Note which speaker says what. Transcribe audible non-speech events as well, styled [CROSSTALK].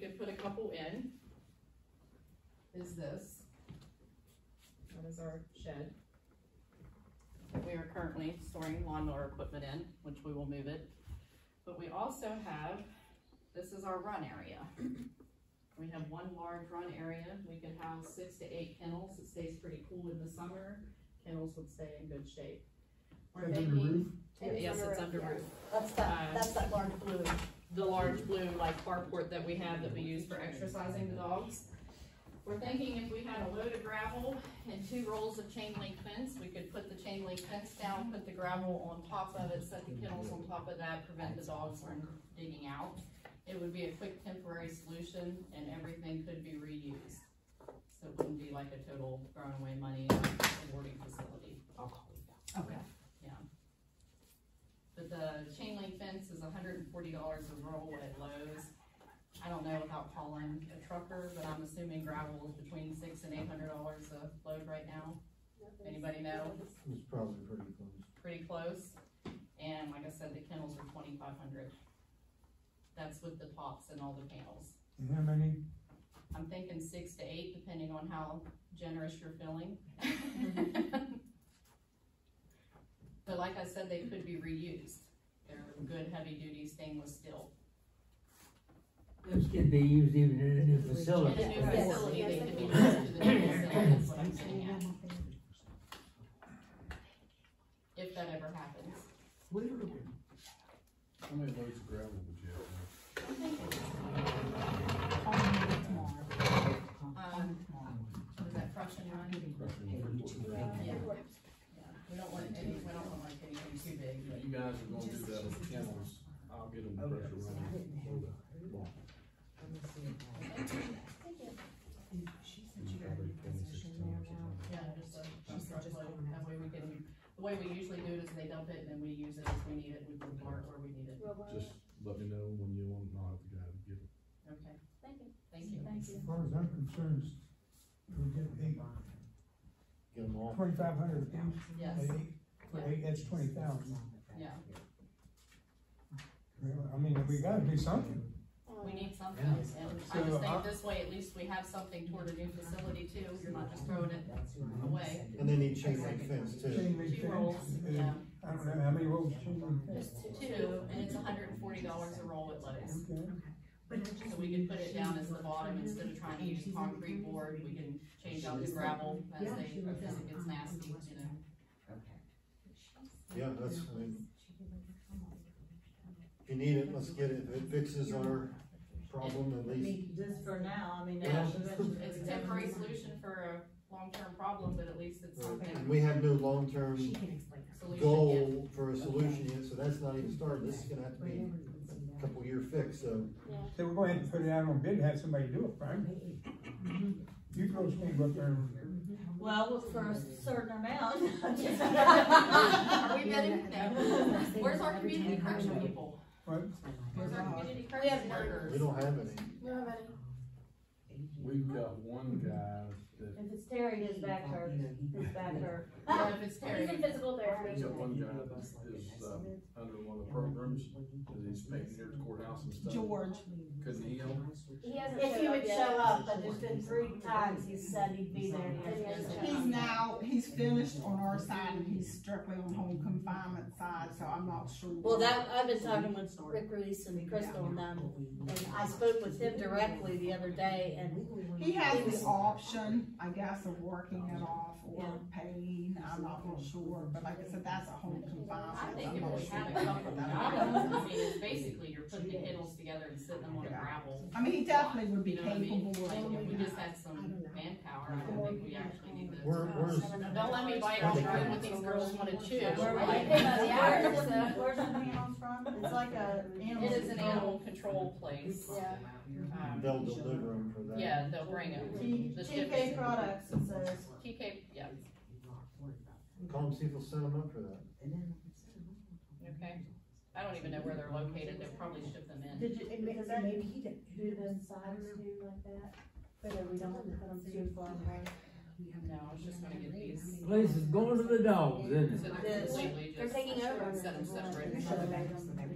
Speaker 1: could put a couple in, is this,
Speaker 2: That is our shed.
Speaker 1: that we are currently storing lawnmower equipment in, which we will move it. But we also have, this is our run area. We have one large run area, we could house six to eight kennels, it stays pretty cool in the summer, kennels would stay in good shape. We're
Speaker 3: Under
Speaker 1: thinking-
Speaker 3: roof?
Speaker 1: Yes, it's under
Speaker 4: yeah.
Speaker 1: roof. Um,
Speaker 4: That's that, that's that large blue.
Speaker 1: the large blue like carport that we have that we use for exercising the dogs. We're thinking if we had a load of gravel and two rolls of chain link fence, we could put the chain link fence down, put the gravel on top of it, set the kennels on top of that, prevent the dogs from digging out. It would be a quick temporary solution and everything could be reused. So it wouldn't be like a total throwing away money in a boarding facility. I'll call it that.
Speaker 4: Okay.
Speaker 1: But the chain link fence is hundred and forty dollars a roll at Lowe's. I don't know without calling a trucker, but I'm assuming gravel is between six and eight hundred dollars a load right now, Anybody know?
Speaker 3: It was probably
Speaker 1: pretty
Speaker 3: pretty close.
Speaker 1: close. And like I said, the kennels are twenty-five hundred. That's with the tops and all the panels.
Speaker 3: And how many?
Speaker 1: I'm thinking six to eight, depending on how generous you're feeling. But like I said, they could be reused. They're good heavy-duty stainless steel.
Speaker 5: Those could be used even in a new
Speaker 1: In a
Speaker 5: facility.
Speaker 1: new
Speaker 4: Yes.
Speaker 1: facility, they
Speaker 4: Yes.
Speaker 1: could be moved to the new facility, that's what I'm saying, if that ever happens.
Speaker 5: Where-
Speaker 6: How many loads of gravel would you have?
Speaker 1: Um, was that crush and run? Yeah. Yeah, we don't want any, we don't want like anything too big, but
Speaker 6: You guys are gonna do that with kennels, I'll get them pressure running. Probably 26 tons or something.
Speaker 1: yeah, just a dump truck load, that way we can, the way we usually do it is they dump it and then we use it as we need it, we can park where we need it.
Speaker 6: Just let me know when you want, and I'll have the guy to get them.
Speaker 1: Okay,
Speaker 4: Thank you.
Speaker 1: thank you.
Speaker 4: Thank you.
Speaker 3: As far as I'm concerned, we get eight,
Speaker 6: Get them all.
Speaker 3: twenty-five hundred each,
Speaker 1: Yes,
Speaker 3: eight, for eight, that's twenty thousand.
Speaker 1: yeah,
Speaker 3: I mean, we gotta do something.
Speaker 1: we need something,
Speaker 5: Yeah.
Speaker 1: and I
Speaker 3: So,
Speaker 1: just
Speaker 3: uh,
Speaker 1: think this way, at least we have something toward a new facility too, you're not just throwing it away.
Speaker 5: And
Speaker 6: they need chain link fence
Speaker 3: Chain link
Speaker 1: Two rolls,
Speaker 3: fence, uh,
Speaker 1: yeah,
Speaker 3: I don't know, how many rolls chain link fence?
Speaker 1: just two, and it's hundred and forty dollars a roll at Lowe's.
Speaker 3: Okay.
Speaker 1: So we can put it down as the bottom instead of trying to use concrete board, we can change out the gravel as they, as it gets nasty, you know.
Speaker 7: Yeah, that's, I mean, if you need it, let's get it, if it fixes our problem, at least,
Speaker 4: Just for now, I mean.
Speaker 1: Yeah.
Speaker 4: eventually-
Speaker 1: It's a temporary solution for a long-term problem, but at least it's
Speaker 7: Uh, and
Speaker 1: something,
Speaker 7: we have no long-term
Speaker 1: solution,
Speaker 7: goal for a solution yet, so that's not even started, this is gonna have to be a couple year fix, so.
Speaker 3: So we're going to put it out on bid, and have somebody do it, Frank. You girls can't go up there and,
Speaker 4: Well, for a certain [LAUGHS] amount.
Speaker 1: yeah. Are we bidding? No. Where's our community correction people?
Speaker 3: what,
Speaker 1: Where's our community
Speaker 4: We have
Speaker 1: correction
Speaker 4: none.
Speaker 7: We
Speaker 1: workers?
Speaker 7: don't have any.
Speaker 6: We've got one guy that,
Speaker 4: If it's Terry, his back hurts, his back hurts.
Speaker 1: Yeah, if it's
Speaker 4: He's
Speaker 1: Terry,
Speaker 4: in physical
Speaker 6: we've
Speaker 4: therapy.
Speaker 6: got one guy that is, uh, under one of the programs, that he's making near the courthouse and stuff.
Speaker 8: George.
Speaker 6: Couldn't he help?
Speaker 4: He hasn't If he would show up, but there's been three times he said he'd be there. and he hasn't shown
Speaker 8: He's
Speaker 4: up.
Speaker 8: now, he's finished on our side and he's strictly on home confinement side, so I'm not sure.
Speaker 4: Well, that, I've been talking with Rick Reese and Crystal and them, and I spoke with him directly the other day, and
Speaker 8: He has the option, I guess, of working it off or
Speaker 4: Yeah.
Speaker 8: paying, I'm not real sure, but like I said, that's a home confinement.
Speaker 1: I think
Speaker 8: I'm
Speaker 1: if
Speaker 8: not
Speaker 1: we
Speaker 8: sure
Speaker 1: had a
Speaker 8: about
Speaker 1: couple of guys,
Speaker 8: that.
Speaker 1: I mean, it's basically you're putting the kennels together and sitting them on a gravel.
Speaker 8: I mean, he definitely would be
Speaker 1: You know what I mean?
Speaker 8: capable of
Speaker 1: Like, if we
Speaker 8: doing
Speaker 1: just
Speaker 8: that.
Speaker 1: had some manpower, I don't think we actually need this.
Speaker 7: Where, where's,
Speaker 1: Don't let me bite off right what these girls wanna chew.
Speaker 4: we're
Speaker 7: Right.
Speaker 4: like,
Speaker 1: It [LAUGHS]
Speaker 4: where's the,
Speaker 7: Yeah.
Speaker 4: where's the panels from? It's like a animal.
Speaker 1: is an animal control place. Um,
Speaker 7: they'll deliver them for that.
Speaker 1: Yeah, they'll bring
Speaker 4: T-
Speaker 1: them. The ship
Speaker 4: TK
Speaker 1: is-
Speaker 4: products, it says.
Speaker 1: TK, yeah,
Speaker 7: Call them, see if they'll set them up for that.
Speaker 1: okay. I don't even know where they're located, they'll probably ship them in.
Speaker 4: Did you, because that, do the sides do like that? But we don't have to put them too far away.
Speaker 1: No, I was just gonna get these.
Speaker 5: Place is going to the dogs,
Speaker 1: So
Speaker 5: isn't it?
Speaker 1: they're completely just,
Speaker 4: They're taking over.
Speaker 1: set them separate.
Speaker 4: You should have made them.